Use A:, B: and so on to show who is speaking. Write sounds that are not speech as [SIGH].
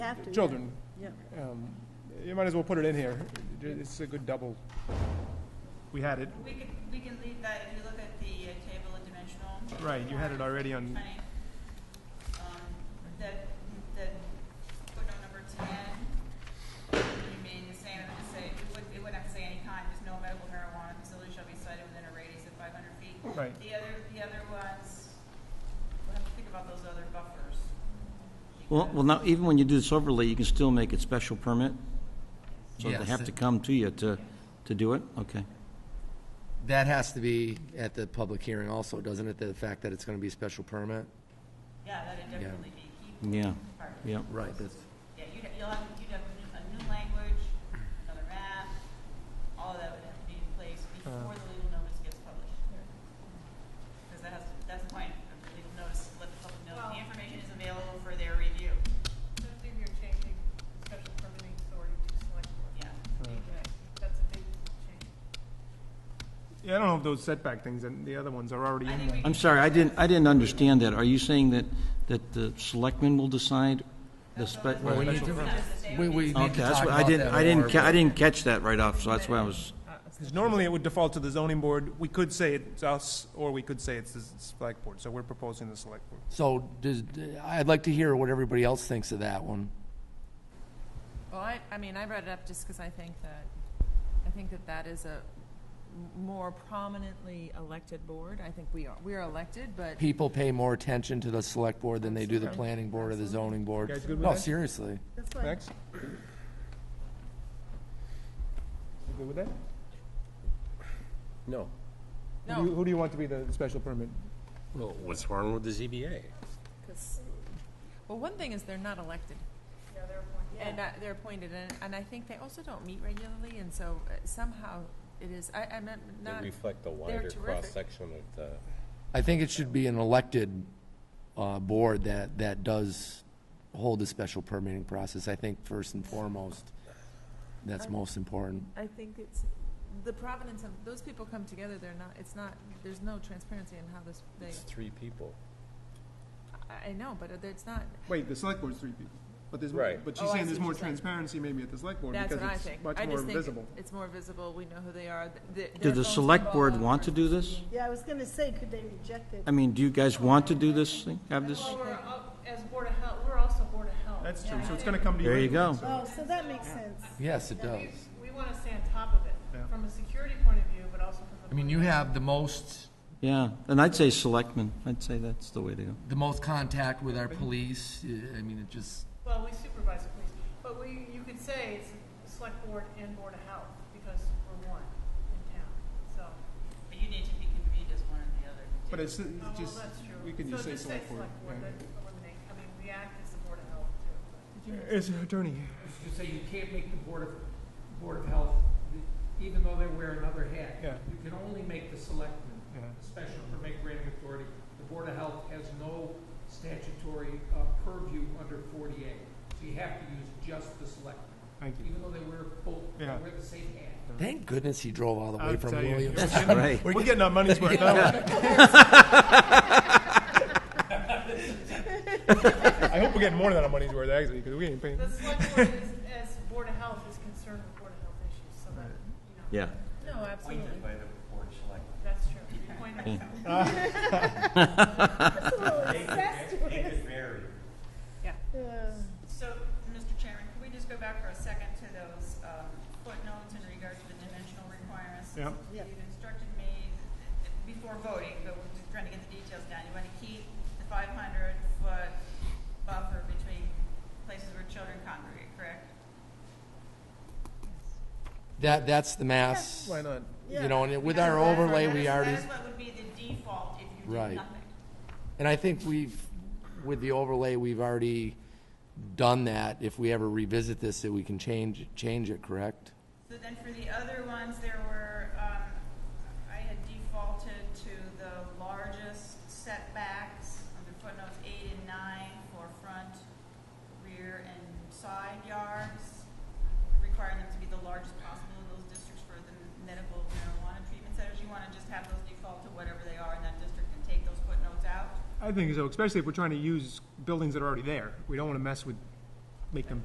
A: have to, yeah.
B: children.
A: Yeah.
B: Um, You might as well put it in here. It's a good double. We had it,
C: We could, we can leave that, if you look at the uh, table of dimensional.
B: Right, you had it already on-
C: Funny. Um, That, that footnote number ten remain the same, it would say, it would, it would have to say any kind, there's no medical marijuana facility shall be cited within a radius of five hundred feet.
B: right.
C: The other, the other ones, we'll have to think about those other buffers.
D: Well, well, now, even when you do this overlay, you can still make it special permit? So they
E: Yes.
D: have to come to you to, to do it? Okay.
E: That has to be at the public hearing also, doesn't it? The fact that it's going to be a special permit?
C: Yeah, that'd definitely be, keep
D: Yeah,
C: part of it.
D: yeah.
E: Right, that's,
C: Yeah, you'd, you'll have, you'd have a new- a new language, another map, all of that would have to be in place before the legal notice gets published. Because that has, to- that's the point, of the legal notice, let the public know, the information is available for their review,
F: I think you're changing special permitting authority to select board.
C: yeah.
F: Right. That's a big change.
B: Yeah, I don't know if those setback things and the other ones are already
C: I
B: in
C: think we
B: there.
D: I'm sorry, I didn't, I didn't understand that. Are you saying that, that the selectmen will decide the spe-
E: Well, we need to, we, we need to
D: Okay,
E: talk
D: that's what, I
E: about
D: didn't,
E: that
D: I didn't,
E: more,
D: ca- I
E: but-
D: didn't catch that right off, so that's why I was,
B: 'Cause normally it would default to the zoning board. We could say it's us, or we could say it's the s- select board, so we're proposing the select board.
E: So, does, I'd like to hear what everybody else thinks of that one.
G: Well, I, I mean, I brought it up just because I think that, I think that that is a m- more prominently elected board. I think we are, we are elected, but
E: People pay more attention to the select board than they do the planning board or the zoning board.
B: You guys good with
E: No,
B: that?
E: seriously.
A: That's fine.
B: Max? You good with that?
H: No.
B: Who do you- Who do you want to be the special permit?
H: Well, what's wrong with the ZBA?
G: Well, one thing is they're not elected. And uh, they're appointed, and, and I think they also don't meet regularly, and so uh, somehow it is, I, I'm not,
H: They
G: not,
H: reflect the
G: wider
H: wider
G: terrific. cross-section
H: cross-section of the,
E: I think it should be an elected, uh, board that, that does hold a special permitting process. I think first and foremost, that's most important.
G: I think it's, the provenance of, those people come together, they're not, it's not, there's no transparency in how this, they,
H: it's three people.
G: I, I know, but it's not,
B: Wait, the select board's three people, but there's,
H: more- Right.
B: but
G: she's Oh, I saying see there's what more you're saying.
B: transparency maybe at the select board
G: that's what I think. I just think It's more visible, we know who they are. th-
D: do
G: th- their
D: the
G: phones
D: select
G: go
D: board
G: off
D: want to
G: versus
D: do this?
A: Yeah, I was gonna say, could they reject it?
D: I mean, do you guys want to do this thing, have this?
F: Well, we're,
G: uh,
F: al- uh, as Board of Health, we're also Board of Health.
B: That's true, so it's gonna come to you.
D: There you go.
A: Oh, so that makes sense.
E: Yes, it
F: And we,
E: does.
F: we want to stay on top of
B: Yeah.
F: it, from a security point of view, but also from the.
E: I mean, you have the most,
D: Yeah, and I'd say selectmen, I'd say that's the way to go.
E: the most contact with our police. I I mean, it just,
F: Well, we supervise the police, but we, you could say it's Select Board and Board of Health, because we're one in town, so.
C: But you need to be convened as one or the other. [LAUGHS]
B: But it's, it's
F: Oh, well,
B: just,
F: that's true.
B: we can just say select
F: So just say
B: board.
F: Select Board,
B: yeah.
F: that eliminate, I mean, we act as the Board of Health, too.
B: Is there an attorney?
I: to say you can't make the Board of, Board of Health, even though they wear another hat.
B: Yeah.
I: You can only make the selectmen
B: Yeah.
I: a special permit granting authority. The Board of Health has no statutory uh, purview under 40A. So you have to use just the selectmen,
B: Thank you.
I: even though they wear both, they
B: Yeah.
I: wear the same hat.
E: thank goodness he drove all the
B: I'll
E: way from
B: tell you.
E: Williams.
D: Right.
B: We're getting our money's worth now. I hope we're getting more than our money's worth, actually, because we ain't paying.
F: The select board is, as Board of Health is concerned with Board of Health issues, so that, you know.
D: Yeah.
F: No, absolutely. That's true. Point of Health.
A: That's a little incestuous.
G: Yeah.
A: Uh,
C: So, Mr. Chairman, can we just go back for a second to those um, footnotes in regard to the dimensional requirements?
B: Yeah.
A: Yeah.
C: You've instructed me uh, before voting, but we're just trying to get the details down. You want to keep the 500-foot buffer between places where children congregate, correct?
E: That, that's the mass.
B: Why not?
E: You know, and with
C: Because
E: our
C: that is-
E: overlay,
C: that
E: we
C: is-
E: already,
C: That is what would be the default if you
E: Right.
C: did nothing.
E: and I think we've, with the overlay, we've already done that. If we ever revisit this, that we can change, change it, correct?
C: So then for the other ones, there were, um, I had defaulted to the largest setbacks under footnotes eight and nine for front, rear, and side yards, requiring them to be the largest possible in those districts for the medical marijuana treatment centers. You wanna just have those default to whatever they are in that district and take those footnotes out?
B: I think so, especially if we're trying to use buildings that are already there. We don't want to mess with, make them